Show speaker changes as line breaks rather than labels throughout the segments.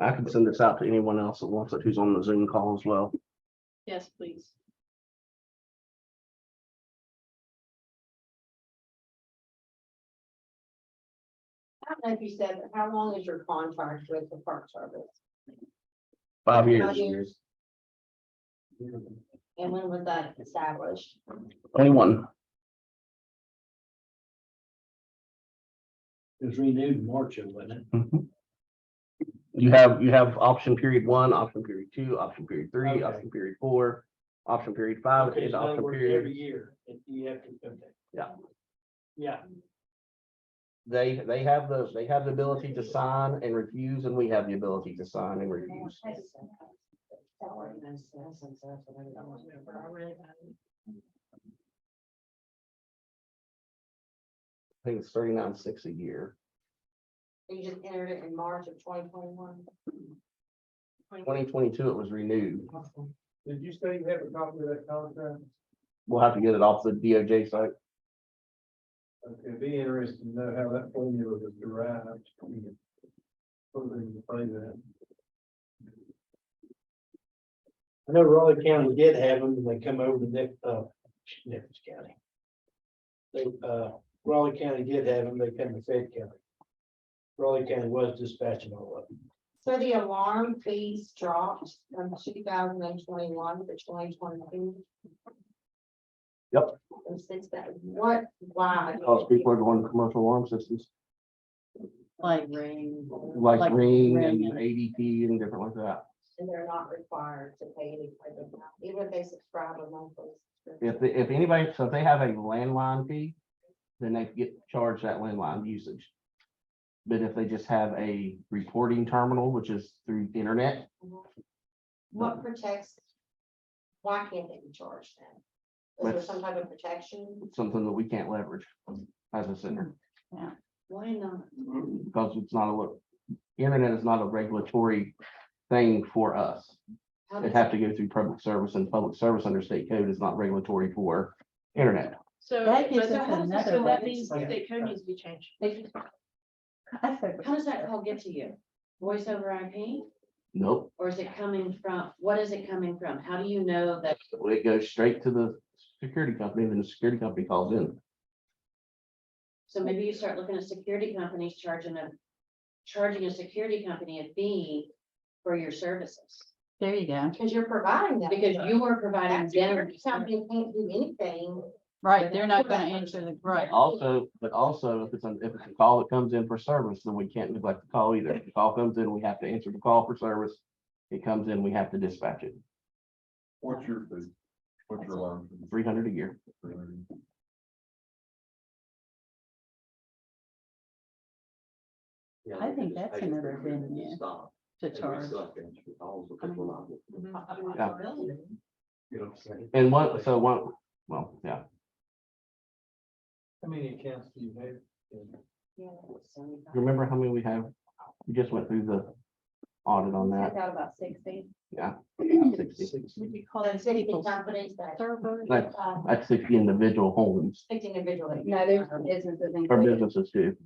I can send this out to anyone else that wants it, who's on the Zoom call as well.
Yes, please.
I don't know if you said, but how long is your contract with the Park Service?
Five
Five
years,
years. And when was that established?
anyone,
It was renewed in March, wasn't it?
Mm-hmm. you have, you have option period one, option period two, option period three,
Okay.
option period four, option period five,
Okay,
and
so in other
option
words,
period.
every year, if you have to, okay.
Yeah.
Yeah,
They, they have the, they have the ability to sign and refuse, and we have the ability to sign and refuse. I think it's thirty-nine six a year,
You just entered it in March of twenty twenty-one?
twenty twenty-two, it was renewed,
Did you say you have a copy of that contract?
we'll have to get it off the DOJ site.
It'd be interesting to know how that formula was derived. Something to say that.
I know Raleigh County did have them, and they come over to Nick, uh, Nichols County. They, uh, Raleigh County did have them, they come to Fayette County. Raleigh County was dispatching all of them.
So the alarm fees dropped from two thousand and twenty-one to twenty twenty-two?
Yep. Oh,
And since that, what, why?
Cause people are going to commercial alarm systems,
Like rain.
like Ring and
Ring and-
ADP and different like that.
And they're not required to pay any kind of amount, even if they subscribe to monthly. subscription.
If, the- if anybody, so if they have a landline fee, then they get charged that landline usage. But if they just have a reporting terminal, which is through the internet,
What protects? Why can't they be charged then? Is there
Let's-
some type of protection?
it's something that we can't leverage as a center.
Why not?
because it's not a, internet is not a regulatory thing for us.
How
It'd
does-
have to go through public service and public service under state code is not regulatory for internet.
So,
That
but
gives
so
us
how does-
another
so that
way.
means
Okay.
state code needs to be changed.
I said,
How does that call get to you? Voice over IP?
Nope,
Or is it coming from, what is it coming from? How do you know that?
it goes straight to the security company, then the security company calls in.
So maybe you start looking at security companies charging a, charging a security company a fee for your services.
there you go.
Because you're providing that.
Because you were providing
That security
them.
company can't do anything.
Right, they're not gonna answer the, right.
Also, but also, if it's, an- if it's a call that comes in for service, then we can't neglect the call either. If the call comes in, we have to answer the call for service. It comes in, we have to dispatch it,
What's your, what's your alarm?
three hundred a year.
I think that's another venue to charge.
Yeah. And one, so one, well, yeah.
How many accounts do you have?
Remember how many we have? We just went through the audit on that.
out about sixty.
Yeah. 60.
Would you call
But
those
city
people
companies that,
servers?
Like,
uh,
That's sixty individual homes
picked individually.
No, there's businesses
or businesses too.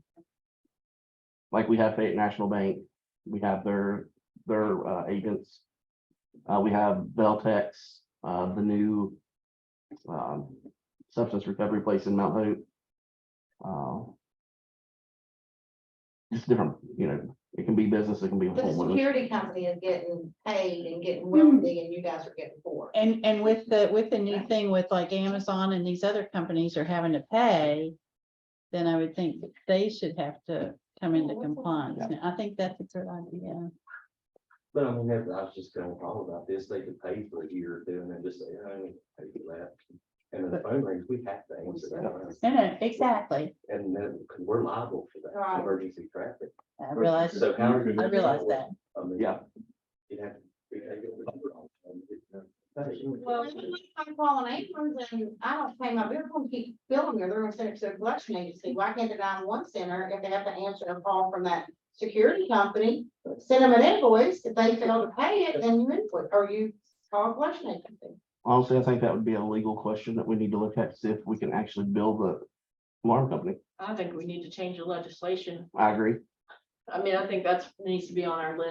Like we have Fayette National Bank, we have their, their uh, agents. Uh, we have Beltex, uh, the new um, substance recovery place in Mount Hope. Uh, Just different, you know, it can be business, it can be.
But the
homeowners.
security company is getting paid and getting wealthy and you guys are getting poor.
And, and with the, with the new thing with like Amazon and these other companies are having to pay, then I would think that they should have to come into compliance. Now, I think that's a good idea.
But I mean, that, I was just gonna talk about this, they could pay for a year or two and then just say, I don't need to pay for that. And then the phone rings, we have to answer that,
No, no, uh, exactly.
and then we're liable for that
Right.
emergency traffic.
I realize,
So how?
I realize that.
I mean,
Yeah.
You'd have to. you'd have to go wrong.
Well, I'm calling aprons and I don't pay my bill, I'm gonna keep billing her, they're gonna send it to a collection agency. Why can't the nine-one center, if they have to answer a call from that security company, send them an invoice, if they fail to pay it, then you input, or you call a collection agency.
Honestly, I think that would be a legal question that we need to look at, to see if we can actually build the alarm company.
I think we need to change the legislation.
I agree.
I mean, I think that's, needs to be on our list.